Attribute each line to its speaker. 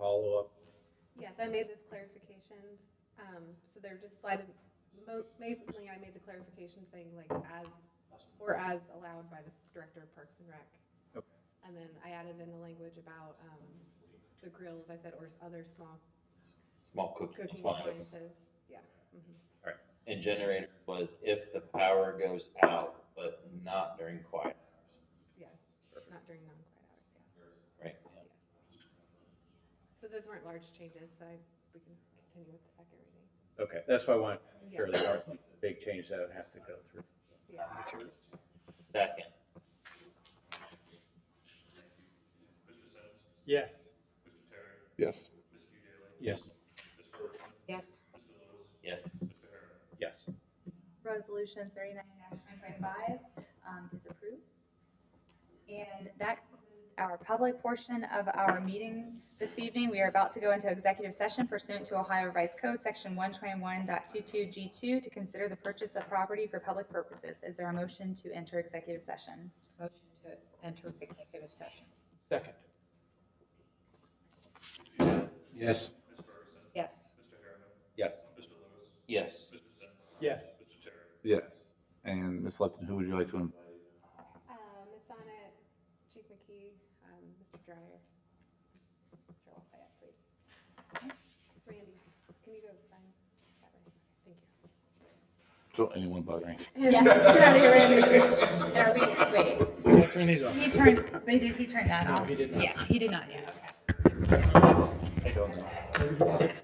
Speaker 1: follow-up?
Speaker 2: Yes, I made those clarifications, um, so they're just slided, mo- mainly I made the clarification saying like as, or as allowed by the director of Parks and Rec.
Speaker 1: Okay.
Speaker 2: And then I added in the language about, um, the grills, I said, or s- other small
Speaker 3: small cooking
Speaker 2: cooking
Speaker 3: appliance.
Speaker 2: appliances, yeah. mhm.
Speaker 3: And generator was if the power goes out, but not during quiet,
Speaker 2: Yeah, not during non-quiet hours, yeah.
Speaker 3: right?
Speaker 2: So those weren't large changes, so I, we can continue with the second reading.
Speaker 1: Okay, that's why I want to make
Speaker 2: Yeah.
Speaker 1: sure there aren't any big changes that has to go through.
Speaker 2: Yeah,
Speaker 3: Second,
Speaker 4: Yes.
Speaker 5: Yes.
Speaker 4: Yes.
Speaker 6: Yes.
Speaker 3: yes,
Speaker 1: Yes.
Speaker 7: Resolution thirty-nine nine twenty-five, um, is approved. And that concludes our public portion of our meeting this evening. We are about to go into executive session pursuant to Ohio Revised Code, section one twenty-one G two, to consider the purchase of property for public purposes. Is there a motion to enter executive session?
Speaker 6: Motion to enter executive session.
Speaker 4: Second.
Speaker 1: Yes.
Speaker 6: Yes.
Speaker 1: Yes.
Speaker 3: yes.
Speaker 4: Yes.
Speaker 5: Yes. And Ms. Lepton, who would you like to?
Speaker 2: uh, Ms. Sonnet, Chief McKee, um, Mr. Dryer. Mr. Lafayette, please. Randy, can you go sign that right? Thank you.
Speaker 5: Don't anyone bother me.
Speaker 7: Yes. Get out of here, Randy. No, wait, wait.
Speaker 4: Turn these off.
Speaker 7: He turned, wait, did he turn that off?
Speaker 4: he did not.
Speaker 7: Yeah, he did not, yeah, okay.
Speaker 5: I don't know.